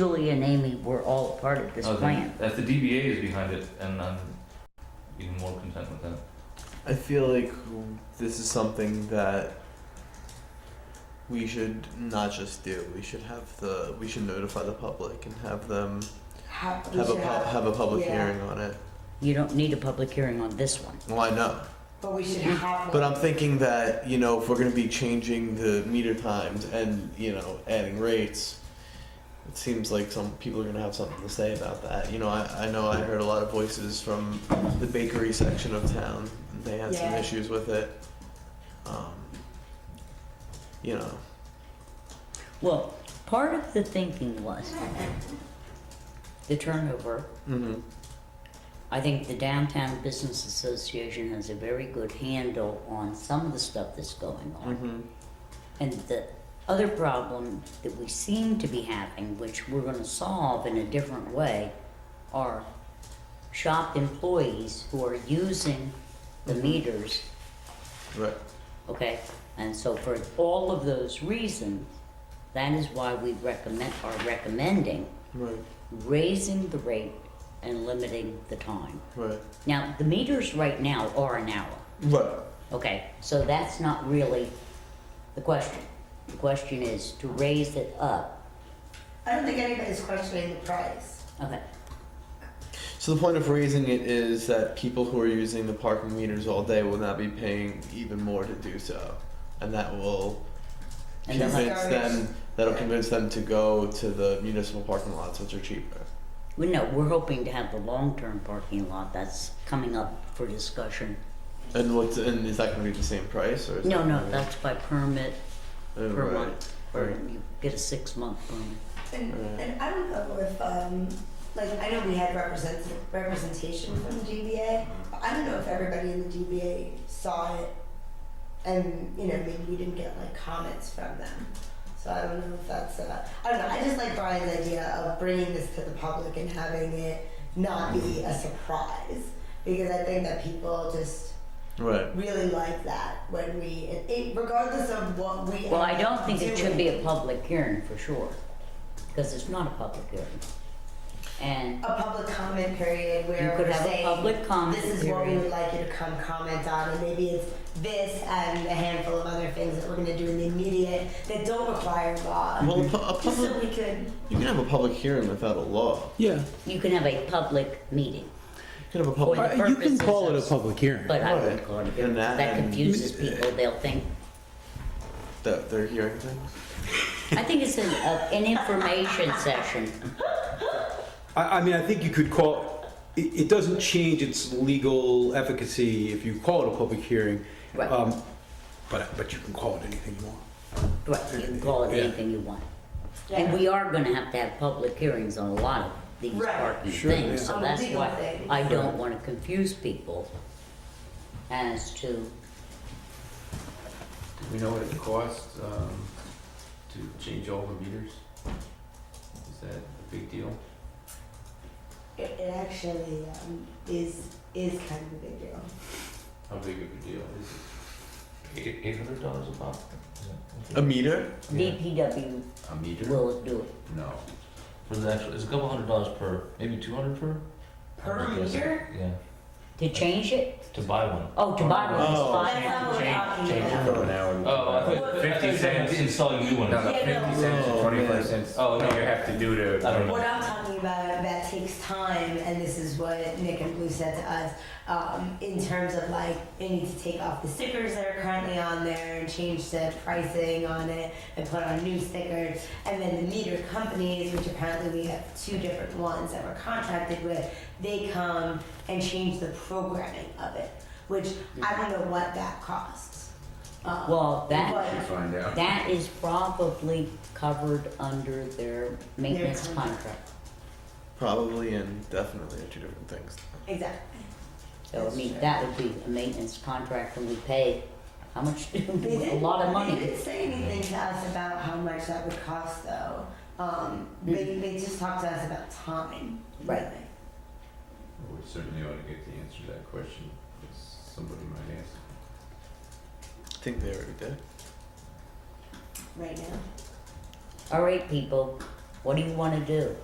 Julie and Amy were all part of this Oh, the- plan. That's the DBA is behind it, and I'm even more content with that. I feel like this is something that we should not just do. We should have the we should notify the public and have them Have, we have a should pub, have, have a public yeah. hearing on it. You don't need a public hearing on this one. Well, I know, but we should have. Mm-hmm. but I'm thinking that you know if we're going to be changing the meter times and you know adding rates, it seems like some people are going to have something to say about that. You know, I, I know I heard a lot of voices from the bakery section of town. They had some Yeah. issues with it. Um, you know. Well, part of the thinking was the turnover. Mm-hmm. I think the Downtown Business Association has a very good handle on some of the stuff that's going on. Mm-hmm. And the other problem that we seem to be having, which we're gonna solve in a different way, are shop employees who are using the meters, Right. okay? And so for all of those reasons, that is why we recommend, are recommending Right. raising the rate and limiting the time. Right. Now, the meters right now are an hour. Right. Okay, so that's not really the question. The question is to raise it up. I don't think anybody's questioning the price. Okay, So the point of raising it is that people who are using the parking meters all day will not be paying even more to do so, and that will And they'll convince have- them. That'll convince them to go to the municipal parking lots, which are cheaper. well, no, we're hoping to have the long-term parking lot that's coming up for discussion. And what's and is that going to be the same price or? Is No, that no, gonna that's by permit be- Oh, per right. month, or Right. you get a six-month permit. And, Right. and I don't know if, um, like, I know we had represent, representation from the DBA, but I don't know if everybody in the DBA saw it. And, you know, maybe we didn't get like comments from them. So I don't know if that's, uh, I don't know, I just like Brian's idea of bringing this to the public and having it not be a surprise. Because I think that people just Right. really like that when we, it- it, regardless of what we. Well, I end don't up think it should doing. be a public hearing for sure, because it's not a public hearing. And, a public comment period where You could we're have a saying, public comment this is what we period." would like you to come comment on, and maybe it's this and a handful of other things that we're going to do in the immediate that don't require law. Well, a, pu- a just so public we could. you can have a public hearing without a law. Yeah, you can have a public meeting, You can have a Or public. the Uh, you can purpose call it is- a public hearing. but I wouldn't Right. call it a And hearing, 'cause that- that and- confuses people, they'll think, That they're hearing things. I think it's an, uh, an information session. I, I mean, I think you could call, it, it doesn't change its legal efficacy if you call it a public hearing. Right. Um, But, but you can call it anything you want. Right, you can call it Yeah. anything you want. And we are gonna have to have public hearings on a lot of these Right. parking Sure, things, yeah. so On that's legal why things. I don't wanna confuse people as to, We know what it costs um, to change all the meters. Is that a big deal? It, it actually um, is is kind of a big deal. How big of a deal is it? Eight hundred dollars a pop. A meter. Yeah. DPW A meter? will do it. No. For the actual, it's a couple hundred dollars per, maybe two hundred per. Per I guess. meter? Yeah, To change it? to buy one. Oh, to buy one is Oh. five That's not hundred. what we're talking Change it about. from an hour. to Oh, I an thought- I hour. thought you said Installing new ones. No, no, Yeah, no. fifty cents Oh, or man. twenty-five cents. Oh, what no. you have to do to. I don't know. What I'm talking about that takes time, and this is what Nick and Blue said to us um, in terms of like they need to take off the stickers that are currently on there and change the pricing on it and put on new stickers. And then the meter companies, which apparently we have two different ones that we're contracted with, they come and change the programming of it, which I don't know what that costs. Um, Well, that, Should find out. that is probably covered under their maintenance contract. contract. Probably and definitely are two different things. but- exactly. So, I That's mean, true. that would be a maintenance contract and we pay, how much, They a didn't- lot of money. They didn't say anything to us about how much that would cost, though. Um, they, they just talked to us about time. Right. really. We certainly ought to get the answer to that question, because somebody might ask. I think they already did. Right now. All right, people, What do you wanna do?